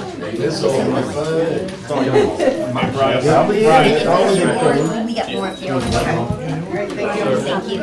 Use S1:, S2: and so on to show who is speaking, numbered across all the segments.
S1: This on my phone.
S2: More, we got more up here. Thank you.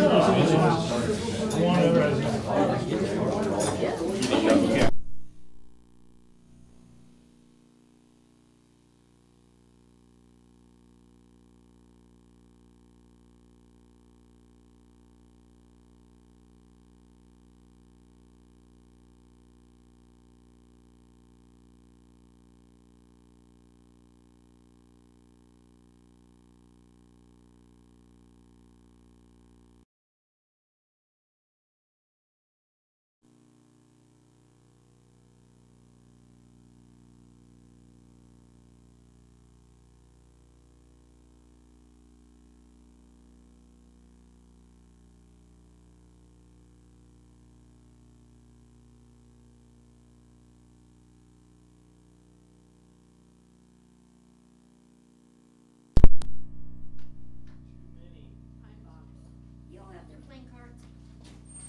S2: You all out there playing cards?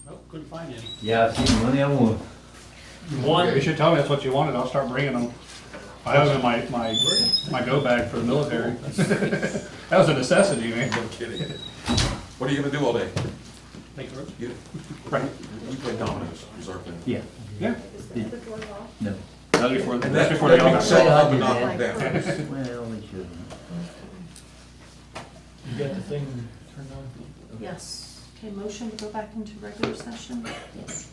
S3: Nope, couldn't find any.
S4: Yeah, I see money, I want.
S3: You should tell me that's what you wanted, I'll start bringing them. I have them in my, my, my go bag for the military. That was a necessity, man.
S5: I'm kidding. What are you gonna do all day?
S3: Thank you.
S5: You,
S3: Right,
S5: you play dominoes, reserve them.
S4: Yeah,
S3: yeah.
S4: no.
S3: That's before,
S5: And
S3: that's
S5: that's
S3: before they all got.
S5: Set up and knock them down.
S4: Well, they shouldn't.
S1: You got the thing turned on?
S6: Yes. Okay, motion to go back into regular session.
S2: Yes.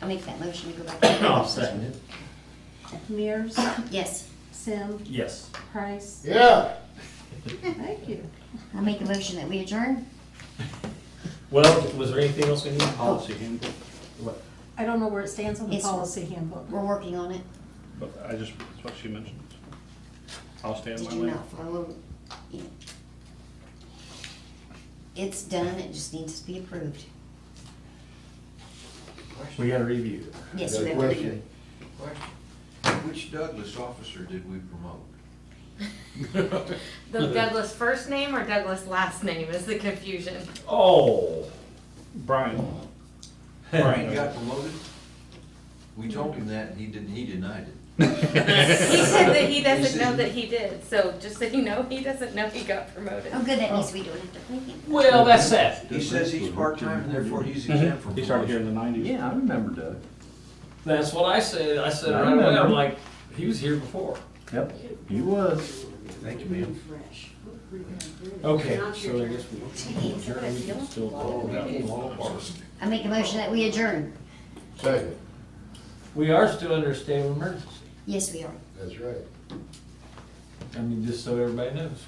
S2: I'll make that motion to go back. to
S1: I'll second it.
S6: Mears,
S2: Yes,
S6: Sim,
S4: Yes.
S6: Price.
S1: Yeah.
S6: Thank you.
S2: I'll make a motion that we adjourn.
S1: Well, was there anything else we need?
S3: Policy handbook.
S6: I don't know where it stands on the
S2: It's-
S6: policy handbook.
S2: We're working on it.
S3: But I just, that's what she mentioned. I'll stand
S2: Did
S3: by
S2: you
S3: my.
S2: not follow? it? It's done, it just needs to be approved.
S4: We gotta review it.
S2: Yes,
S7: Got a
S2: we have to do it.
S7: question? Question. Which Douglas officer did we promote?
S8: The Douglas first name or Douglas last name is the confusion.
S4: Oh.
S3: Brian.
S7: He
S3: Brian.
S7: got promoted? We told him that, and he didn't, he denied it.
S8: He said that he doesn't know that he did, so just so you know, he doesn't know he got promoted.
S2: Oh, good, that means we don't have to think it.
S1: Well, that's sad.
S7: He says he's part-time, and therefore he's exempt from
S3: Mm-hmm. He started here in
S7: promotion.
S3: the nineties.
S4: Yeah, I remember Doug.
S1: That's what I said. I said
S4: I
S1: right away, I'm
S4: remember.
S1: like, he was here before.
S4: Yep, he was.
S7: Thank you, ma'am.
S1: Okay, so I guess we.
S2: I make a motion that we adjourn.
S9: Second,
S1: We are still under a state of emergency.
S2: Yes, we are.
S9: that's right.
S1: I mean, just so everybody knows.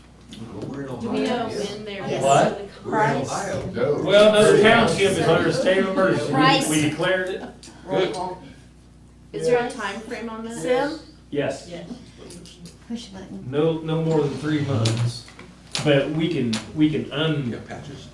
S7: Well, We're in Ohio. yes.
S8: they're.
S2: Yes.
S1: What?
S7: We're in Ohio.
S9: No.
S1: Well, no, the township is under a state of emergency.
S2: Price.
S1: We declared it.
S2: Roll call.
S8: Is there a time frame on that?
S6: Sim,
S1: Yes.
S2: Push the button.
S1: No, no more than three months. But we can, we can
S5: You
S1: un,
S5: got patches?